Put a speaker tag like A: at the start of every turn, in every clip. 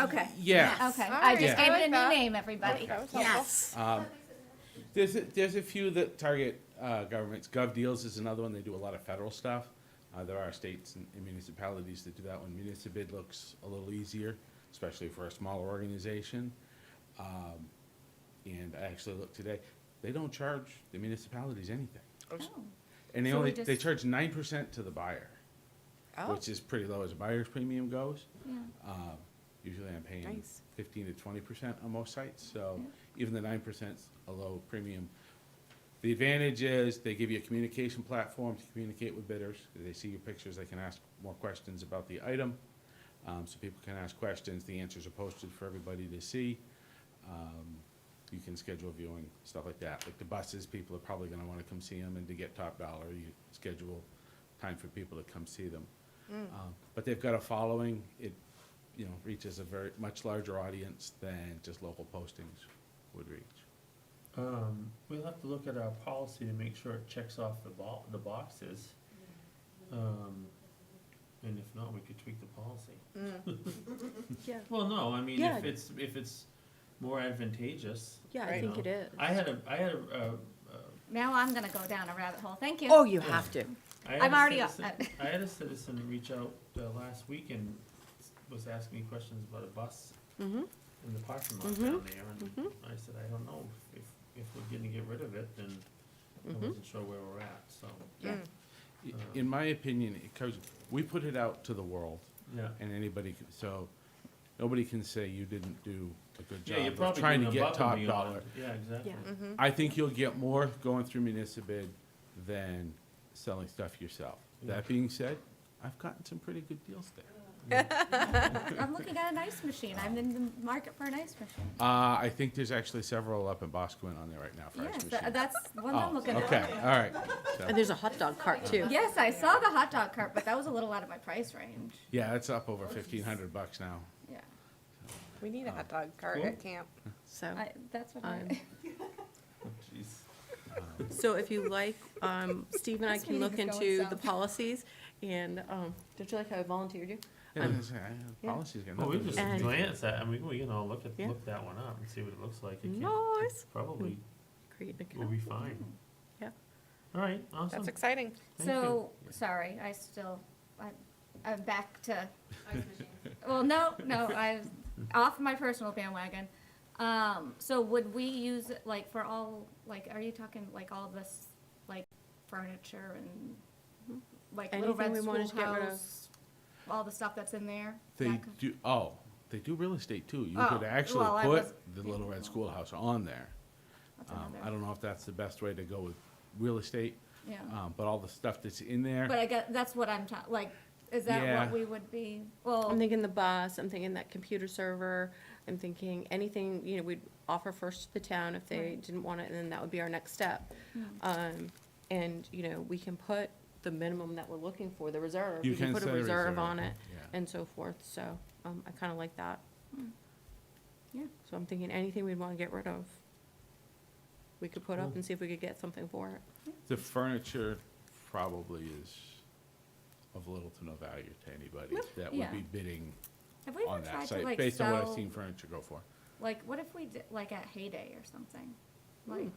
A: Okay.
B: Yeah.
C: Okay,
A: All
C: I
A: right.
C: just
B: Yeah.
C: gave it
A: I
C: a
A: like
C: new
A: that.
C: name, everybody.
B: Okay.
A: Yes.
B: Um, There's, a- there's a few that target uh, governments. Gov Deals is another one. They do a lot of federal stuff. Uh, There are states and and municipalities that do that one. Municipal looks a little easier, especially for a smaller organization. Um, And I actually looked today, they don't charge the municipalities anything. And they
C: Oh. So we
B: only,
C: just-
B: they charge nine percent to the buyer,
A: Oh,
B: which is pretty low as a buyer's premium goes.
C: Yeah.
B: Um, Usually I'm paying
A: Nice.
B: fifteen to twenty percent on most sites, so even the nine percent's a low premium. The advantage is they give you a communication platform to communicate with bidders. They see your pictures, they can ask more questions about the item. Um, so people can ask questions, the answers are posted for everybody to see. Um, you can schedule viewing, stuff like that. Like the buses, people are probably gonna wanna come see them and to get top dollar, you schedule time for people to come see them. Um, But they've got a following, it, you know, reaches a very, much larger audience than just local postings would reach.
D: Um, we'll have to look at our policy to make sure it checks off the bo- the boxes. Um, and if not, we could tweak the policy.
E: Mm. Yeah.
D: Well, no, I mean,
E: Yeah.
D: if it's, if it's more advantageous.
E: Yeah, I
D: you
E: think
D: know.
E: it is.
D: I had a, I had a, uh, uh,
C: Now I'm gonna go down a rabbit hole, thank you.
E: Oh, you have to.
D: I had
C: I'm
D: a
C: already up.
D: citizen- I had a citizen reach out, uh, last week and s- was asking me questions about a bus
C: Mm-hmm.
E: Mhm.
D: in the parking lot down there, and I said, I don't know if, if we're gonna get rid of it, then I
C: Mm-hmm.
D: wasn't sure where we're at, so,
C: Yeah.
B: I-
D: Uh.
B: In my opinion, it comes, we put it out to the world
D: yeah.
B: and anybody, can- so nobody can say you didn't do a good
D: Yeah, you're
B: job of
D: probably
B: trying to
D: doing
B: get
D: above
B: top
D: and
B: dollar.
D: beyond. Yeah, exactly.
E: Yeah.
B: I think you'll get more going through Municipid than selling stuff yourself. That being said, I've gotten some pretty good deals there.
C: I'm looking at an ice machine, I'm in the market for an ice machine.
B: Uh, I think there's actually several up in Bosquen on there right now for ice
C: Yes,
B: machines.
C: tha- that's one
B: Oh,
C: I'm looking
B: Okay,
C: at.
B: all right. So-
E: And there's a hot dog cart too.
C: Yes, I saw the hot dog cart, but that was a little out of my price range,
B: Yeah, it's up over fifteen hundred bucks now.
C: yeah.
A: we need a hot dog cart
D: Cool.
A: at camp.
E: So,
C: I, that's what I,
E: Um,
D: Jeez.
E: so if you like, um, Steve and I
C: This
E: can look
C: meeting is going
E: into the
C: south.
E: policies and, um, don't you like how I volunteered you?
B: Yeah,
E: Um,
B: that's- I- Policy's got
D: Well, Oh, we
B: nothing to
D: just
B: do with
E: And-
D: glance at, I mean, we can all look at,
E: Yeah.
D: look that one up and see what it looks like. It can't-
E: Nice.
D: Probably
E: Create an
D: will
E: account.
D: be fine.
E: Yeah.
D: All right, awesome.
A: That's exciting.
D: Thank you.
C: so, sorry, I still, I, I'm back to Well, no, no, I was off my personal bandwagon. Um, so would we use it like for all, like, are you talking like all this, like furniture and like Little
E: Anything
C: Red
E: we wanted to get rid of.
C: Schoolhouse? All the stuff that's in there?
B: They
C: That could-
B: do, oh, they do real estate too. You
C: Oh,
B: could actually
C: well, I
B: put
C: was-
B: the Little Red Schoolhouse on there.
C: that's
B: Um, I
C: another-
B: don't know if that's the best way to go with real estate,
C: Yeah,
B: um, but all the stuff that's in there.
C: but I guess, that's what I'm ta- like, is that
B: Yeah.
C: what we would be, well,
E: I'm thinking the bus, I'm thinking that computer server, I'm thinking anything, you know, we'd offer first to the town if they
C: Right.
E: didn't want it, and then that would be our next step.
C: Hmm.
E: Um, and, you know, we can put the minimum that we're looking for, the reserve,
B: You
E: we can
B: can
E: put a
B: set a
E: reserve
B: reserve,
E: on it
B: yeah.
E: and so forth, so, um, I kinda like that.
C: Hmm. Yeah.
E: So I'm thinking anything we'd wanna get rid of, we could put up and see if we could get something for it.
B: The furniture probably is of little to no value to anybody that would
C: Yeah.
B: be bidding
C: have we ever
B: on that
C: tried to
B: site,
C: like
B: based on what I've
C: sell,
B: seen furniture go for.
C: like, what if we did, like at Heyday or something? Like,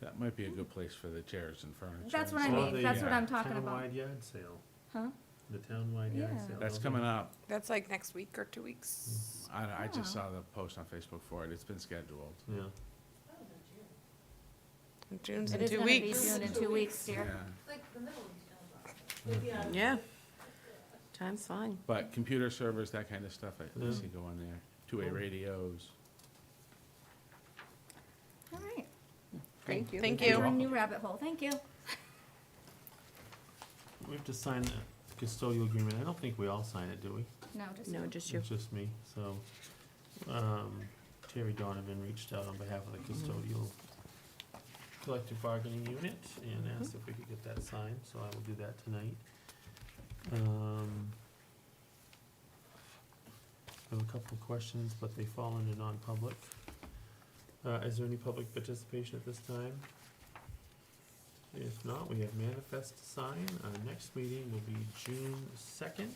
B: That might be a good place for the chairs and furniture.
C: That's
B: and
C: what I
B: stuff.
D: Or
C: mean,
D: the,
C: that's what
B: uh,
C: I'm talking about.
D: Townwide yard sale,
C: huh?
D: the townwide yard
C: Yeah.
D: sale.
B: That's coming up.
A: That's like next week or two weeks.
B: I, I just
C: Yeah.
B: saw the post on Facebook for it. It's been scheduled.
D: Yeah,
B: Hmm.
A: June's
C: It
A: in
C: is
A: two
C: gonna be
A: weeks.
C: June in two weeks,
B: Yeah.
C: dear.
E: Yeah. Time's fine.
B: But computer servers, that kind of stuff, I I
D: Yeah.
B: see go on there. Two-way
C: Oh.
D: Cool.
B: radios.
C: All right.
A: Thank you.
B: Thank
A: Thank
B: you.
C: We're
A: you.
C: in a new rabbit hole. Thank you.
D: we have to sign the custodial agreement, I don't think we all sign it, do we?
C: No, just.
E: No,
C: you.
E: just you.
D: It's just me, so, um, Terry Donovan reached out on behalf of the custodial collective bargaining unit and
E: Mm-hmm.
D: asked if we could get that signed, so I will do that tonight. Um, I have a couple of questions, but they fall into non-public. Uh, is there any public participation at this time? If not, we have manifest to sign, our next meeting will be June second.